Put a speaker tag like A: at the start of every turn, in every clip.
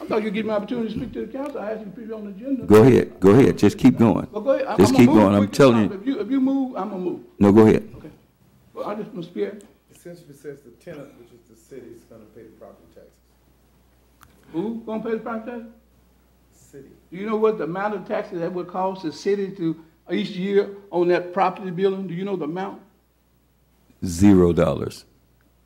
A: I thought you give me an opportunity to speak to the council, I asked you to put it on the agenda.
B: Go ahead, go ahead, just keep going.
A: But go ahead. I'm-
B: Just
A: I'ma
B: keep
A: move
B: going, I'm
A: quick as
B: telling you.
A: possible. If you, if you move, I'm gonna move,
B: No, go ahead.
A: okay? But I just, Mr. Pierre,
C: Essentially says the tenant, which is the city, is gonna pay the property taxes.
A: who gonna pay the property tax?
C: City.
A: Do you know what the amount of taxes that would cost the city to, each year on that property building? Do you know the amount?
B: Zero dollars.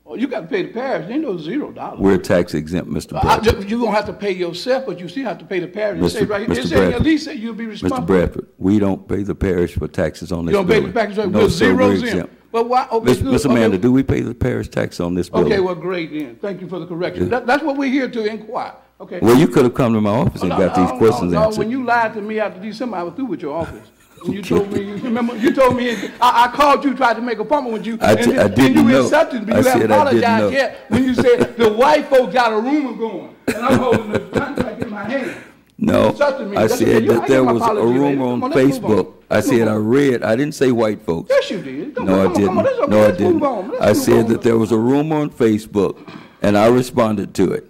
A: Oh, you gotta pay the parish, ain't no zero dollars.
B: We're tax exempt, Mr.
A: I-
B: Bradford.
A: You gonna have to pay yourself, but you still have to pay the parish. It
B: Mr.
A: say right, here- it
B: Mr.
A: say, at
B: Bradford.
A: least that you'll be responsible.
B: Mr. Bradford, we don't pay the parish for taxes on
A: You
B: this
A: don't
B: building.
A: pay the package,
B: No,
A: we're
B: sir, we're
A: zeros in.
B: exempt.
A: But why, oh, okay,
B: Miss-
A: good.
B: Mr.
A: okay.
B: Amanda, do we pay the parish tax on this
A: Okay,
B: building?
A: well, great then. Thank you for the correction. That, that's what we're here to inquire, okay?
B: Well, you could have come to my office and
A: Oh, No,
B: got
A: no,
B: these
A: no,
B: questions
A: no. When
B: answered.
A: you lied to me after December, I was through with your office. When you told me, you remember, you told me, I, I called you, tried to make an appointment with you.
B: I di-
A: and-
B: I
A: And
B: didn't
A: you
B: know.
A: accepted, but
B: I
A: you haven't
B: said I didn't know.
A: apologized yet when you said the white folks got a rumor going. And I'm holding the contract in my hand. You
B: No,
A: insulted me.
B: I
A: That's okay.
B: said
A: You- I
B: that
A: give
B: there
A: my
B: was a
A: apology later.
B: rumor
A: Come
B: on
A: let's move
B: Facebook. I
A: Let's move
B: said I
A: on.
B: read, I didn't say white folks.
A: Yes, you did. Come on,
B: No, I
A: come on, let's-
B: didn't.
A: okay,
B: No, I
A: let's move
B: didn't.
A: on. Let's
B: I
A: move
B: said
A: on.
B: that there was a rumor on Facebook, and I responded to it.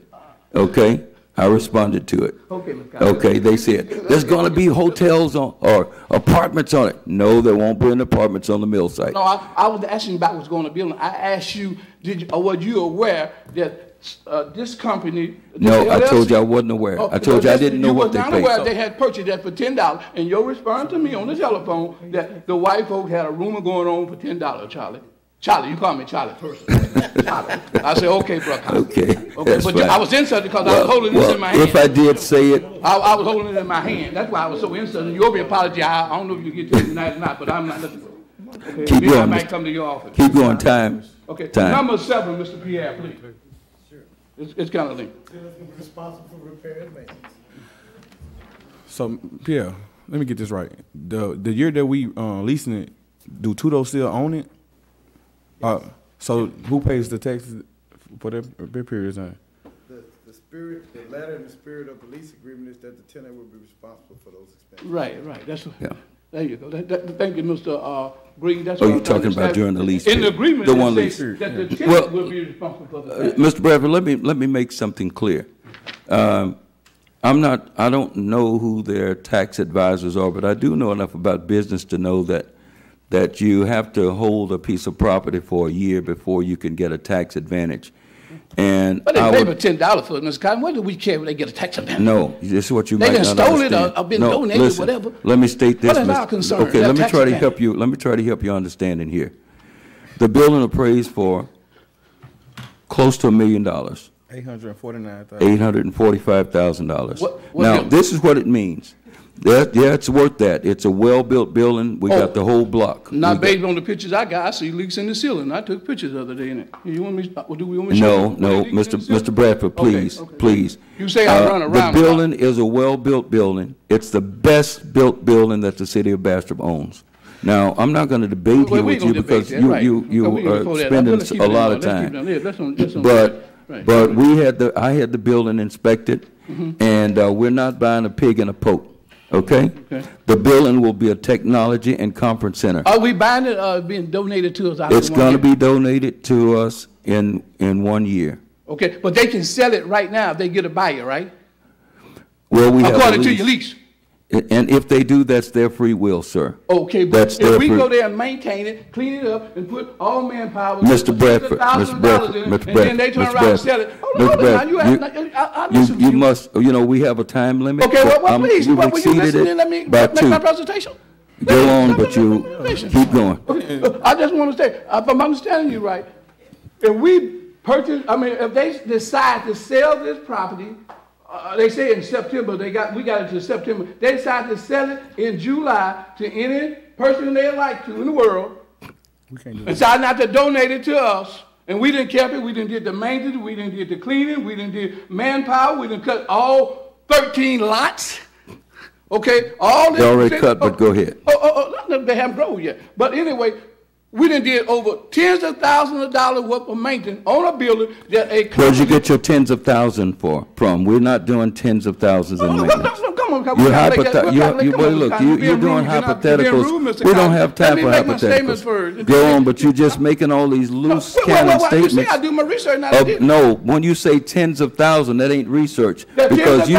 B: Okay? I responded to it.
A: Okay, Ms. Cox.
B: Okay, they said, there's gonna be hotels on, or apartments on it. No, there won't be any apartments on the mill site.
A: No, I, I was asking about what's going to be on. I asked you, did, you- or were you aware that, uh, this company?
B: No, I
A: this
B: told you I
A: LLC
B: wasn't aware.
A: Oh,
B: I told you I
A: that's-
B: didn't know
A: you
B: what
A: was
B: they
A: not aware They
B: paid.
A: had purchased that for ten dollars, and your response to me on the telephone that the white folk had a rumor going on for ten dollars, Charlie. Charlie, you call me Charlie first. Charlie. I said, okay, brother.
B: Okay,
A: Okay,
B: that's
A: but you-
B: fine.
A: I was insulted because I
B: Well,
A: was holding this
B: well,
A: in my
B: If I
A: hand.
B: did say it,
A: I, I was holding it in my hand. That's why I was so insulted. You owe me an apology. I, I don't know if you get to it tonight or not, but I'm not looking. Okay,
B: Keep
A: maybe I
B: going,
A: might
B: Mr.
A: come to your office.
B: keep going, time,
A: Okay,
B: time.
A: number seven, Mr. Pierre, please. It's, it's kind of linked.
C: Tenant's gonna be responsible for repair and maintenance.
D: So Pierre, let me get this right. The the year that we uh, leasing it, do Tudo still own it? Uh, so who pays the taxes for that that period of time?
C: The, the spirit, the letter and the spirit of the lease agreement is that the tenant will be responsible for those expenses.
A: Right, right, that's, what-
B: Yeah.
A: there you go. That- that- thank you, Mr. uh, Green, that's
B: Oh,
A: what
B: you're
A: I'm trying to
B: talking about
A: establish.
B: during the lease
A: In the
B: period.
A: agreement,
B: The one
A: it
B: lease
A: says
B: period,
A: that the
B: Well-
A: tenant will be responsible for
B: Uh,
A: the tax.
B: Mr. Bradford, let me, let me make something clear. Um, I'm not, I don't know who their tax advisors are, but I do know enough about business to know that, that you have to hold a piece of property for a year before you can get a tax advantage. And
A: But
B: I
A: they paid for
B: would,
A: ten dollars for it, Ms. Cotton, what do we care if they get a tax on that?
B: uh, no, this is what you
A: They
B: might not
A: done
B: understand.
A: stole it or- or been
B: No,
A: donated,
B: listen,
A: whatever.
B: Let me state this.
A: What is
B: Mr.
A: our concern?
B: Okay,
A: Their
B: let me
A: tax
B: try to
A: advantage.
B: help you, let me try to help you understanding here. The building appraised for close to a million dollars.
D: Eight hundred and forty nine thousand.
B: eight hundred and forty-five thousand dollars.
A: What- what
B: Now,
A: building?
B: this is what it means. That, yeah, it's worth that. It's a well-built building. We
A: Oh.
B: got the whole block.
A: Not
B: We got-
A: based on the pictures I got, I see leaks in the ceiling, I took pictures the other day in it. You want me, well, do we want me to show
B: No,
A: you?
B: no,
A: Leaks in the
B: Mr.
A: ceiling?
B: Mr. Bradford,
A: Okay,
B: please,
A: okay.
B: please.
A: You say I
B: Uh,
A: run around.
B: The building is a well-built building. It's the best-built building that the city of Bastrop owns. Now, I'm not gonna debate
A: Well,
B: here
A: we
B: with
A: gonna
B: you
A: debate
B: because
A: that,
B: you,
A: right.
B: you,
A: Okay, we
B: you
A: gonna go
B: are
A: there.
B: spending
A: Let's keep it
B: a
A: in
B: lot
A: there.
B: of
A: Let's keep
B: time.
A: it in there. That's on- that's on-
B: But,
A: right. Mm-hmm.
B: but we had the, I had the building inspected, and uh, we're not buying a pig in a poke, okay?
A: Okay.
B: The building will be a technology and conference center.
A: Are we buying it, uh, being donated to us? I
B: It's
A: don't wanna
B: gonna
A: hear.
B: be donated to us in, in one year.
A: Okay, but they can sell it right now if they get a buyer, right?
B: Well, we have a
A: According to
B: lease.
A: your lease.
B: A- And if they do, that's their free will, sir.
A: Okay, but
B: That's their
A: if we
B: free-
A: go there and maintain it, clean it up, and put all manpower.
B: Mr.
A: $100,000
B: Bradford, Mr. Bradford,
A: in it,
B: Mr. Bradford,
A: And then they turn around
B: Mr.
A: and
B: Bradford,
A: sell it. Hold on,
B: Mr.
A: hold on, now,
B: Bradford,
A: you have, I, I
B: you-
A: listen to
B: you
A: you.
B: must, you know, we have a time limit.
A: Okay,
B: but
A: well, well,
B: I'm-
A: please,
B: you've
A: well, will you
B: exceeded
A: listen
B: it
A: and let me
B: by
A: make my
B: two.
A: presentation?
B: Go on,
A: Let me
B: but
A: make my
B: you,
A: presentation.
B: keep going.
A: Okay, I just want to say, uh, if I'm understanding you right, if we purchase, I mean, if they decide to sell this property, uh, they say in September, they got, we got it to September, they decide to sell it in July to any person they like to in the world,
D: We can't do that.
A: decide not to donate it to us, and we didn't keep it, we didn't did the maintenance, we didn't did the cleaning, we didn't did manpower, we didn't cut all thirteen lots, okay, all this.
B: They already cut, but go ahead.
A: Oh, oh, oh, not, they haven't grown yet, but anyway, we done did over tens of thousands of dollars worth of maintenance on a building that a.
B: Where'd you get your tens of thousand for, from? We're not doing tens of thousands in
A: Oh, No, no, no,
B: maintenance.
A: no, Come on. because
B: You're
A: we gotta make that-
B: hypothet-
A: we gotta
B: you, you,
A: come on,
B: well, look,
A: Congress,
B: you,
A: being
B: you're doing
A: rude, you're not- you're being rude,
B: hypotheticals.
A: Mr.
B: We don't
A: Congress.
B: have time for
A: Let me make my statements
B: hypotheticals.
A: first.
B: Go on, but you're just making all these loose
A: Wait, wait, wait,
B: cannon
A: wait. You see, I
B: statements. Oh,
A: do my research and I
B: of-
A: did.
B: No, when you say tens of thousands, that ain't research.
A: That tens
B: Because
A: of
B: you